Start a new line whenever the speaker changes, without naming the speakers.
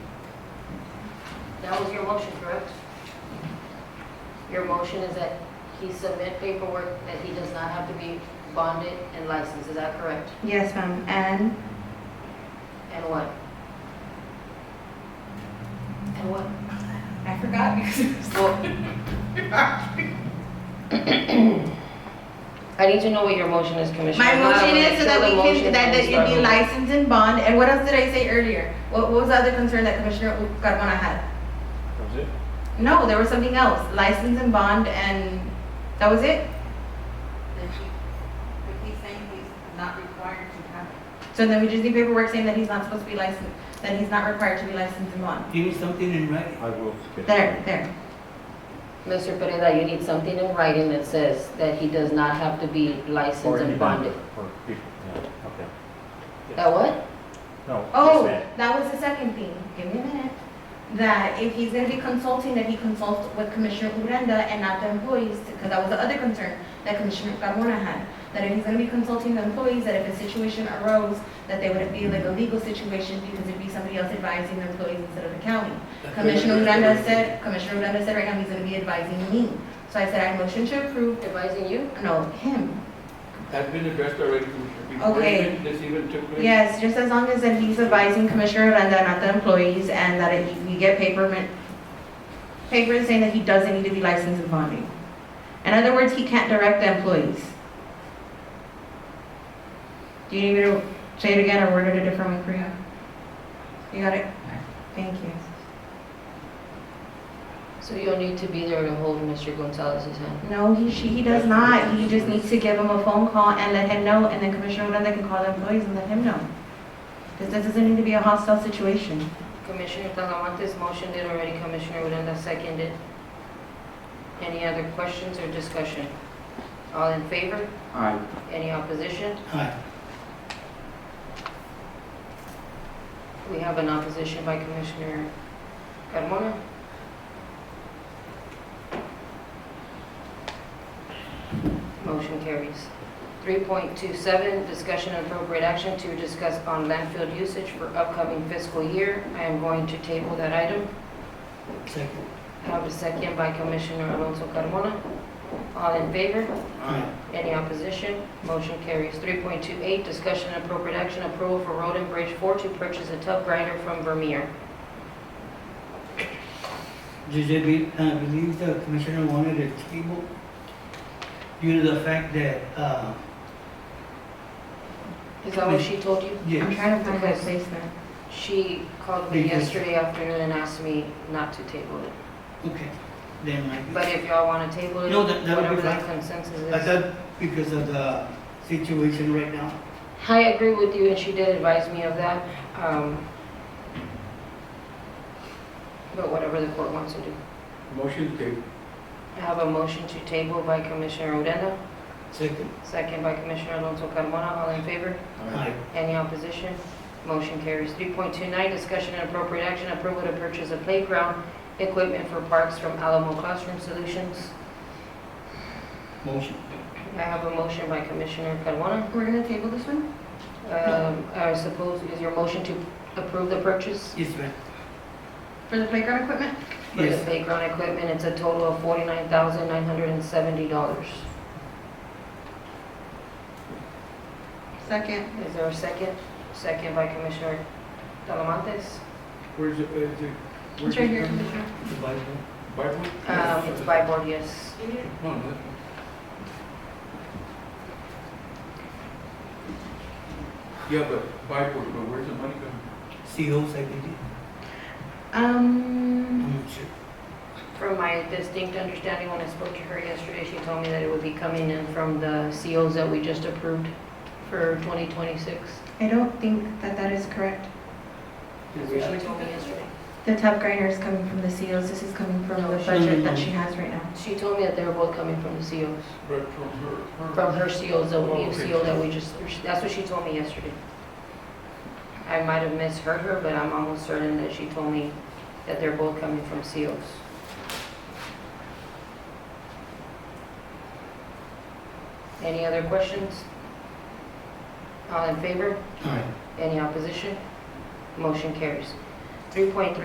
That was your motion, correct? Your motion is that he submit paperwork that he does not have to be bonded and licensed, is that correct?
Yes, ma'am, and
And what? And what?
I forgot because it was-
Well, I need to know what your motion is, Commissioner.
my
I'm not
motion is so that
gonna
we
steal the motion
can, that
from
that you be
Starbucks.
licensed and bond, and what else did I say earlier? What what was the other concern that Commissioner Carmona had?
That's it?
No, there was something else, license and bond, and that was it?
that he, but he's saying he's not required to have it.
So then we just need paperwork saying that he's not supposed to be licensed, that he's not required to be licensed and bond.
Give me something in writing.
I will. get it.
There, there,
Mr. Pereira, you need something in writing that says that he does not have to be
Or
licensed
you
and bonded.
don't, Or people, yeah, okay.
That what?
No. just
Oh,
that.
that was the second thing. Give me a minute. That if he's gonna be consulting, that he consults with Commissioner Uranda and not the employees, because that was the other concern that Commissioner Carmona had. That if he's gonna be consulting the employees, that if a situation arose, that they wouldn't be like a legal situation because it'd be somebody else advising the employees instead of the county. Commissioner Uranda said, Commissioner Uranda said right now he's gonna be advising me. So I said I motion to approve,
Advising you?
no, him.
That's been addressed already, Commissioner. Before
Okay.
even This even took place.
Yes, just as long as that he's advising Commissioner Uranda, not the employees, and that it- we get paper, paper saying that he doesn't need to be licensed and bonding. In other words, he can't direct the employees. Do you need me to say it again or word it a different way for you? You got it? Thank you.
So you'll need to be there to hold Mr. Gonzalez's hand.
No, he, she, he does not. He just needs to give him a phone call and let him know, and then Commissioner Uranda can call the employees and let him know. Because this doesn't need to be a hostile situation.
Commissioner Talamantes motioned it already, Commissioner Uranda seconded. Any other questions or discussion? All in favor?
Aye.
Any opposition?
Aye.
We have an opposition by Commissioner Carmona. Motion carries. 3.27, discussion and appropriate action to discuss on landfill usage for upcoming fiscal year. I am going to table that item.
Second.
I have a second by Commissioner Alonso Carmona. All in favor?
Aye.
Any opposition? Motion carries. 3.28, discussion and appropriate action, approval for road and bridge 4 to purchase a tub grinder from Vermeer.
JJ, be- uh, believes the commissioner wanted a table due to the fact that, uh,
Is that what she told you?
I'm
yes,
trying to find that placement.
She called me yesterday afternoon and asked me not to table it.
okay, then I,
But if y'all want to table it,
No, that- that would be
whatever the
fine.
consensus
I
is.
thought because of the situation right now,
I agree with you, and she did advise me of that. um, But whatever the court wants to do.
Motion carried.
I have a motion to table by Commissioner Odena,
Second.
second by Commissioner Alonso Carmona. All in favor?
Aye.
Any opposition? Motion carries. 3.29, discussion and appropriate action, approval to purchase a playground equipment for parks from Alamo Classroom Solutions.
Motion.
I have a motion by Commissioner Carmona.
We're gonna table this one?
Um, I suppose, is your motion to approve the purchase?
yes, ma'am,
For the playground equipment?
For the
yes,
playground equipment, it's a total of $49,970.
Second.
Is there a second? Second by Commissioner Talamantes.
Where's it, where's it?
It's
where's
right
it
here,
from?
Commissioner.
The Bible. Bible?
Um, It's by board, yes.
No, no. Yeah, but Bible, but where's the money coming?
CO secondary,
Mm-hmm.
Um,
I'm sure.
From my distinct understanding, when I spoke to her yesterday, she told me that it would be coming in from the COs that we just approved for 2026.
I don't think that that is correct.
That's what she told me yesterday.
The top grinder is coming from the COs, this is coming from the budget that she has right now.
She told me that they were both coming from the COs.
Right from her. her-
From her COs, the
Oh,
new
okay.
CO that we just, that's what she told me yesterday. I might have misheard her, but I'm almost certain that she told me that they're both coming from COs. Any other questions? All in favor?
Aye.
Any opposition? Motion carries. 3.3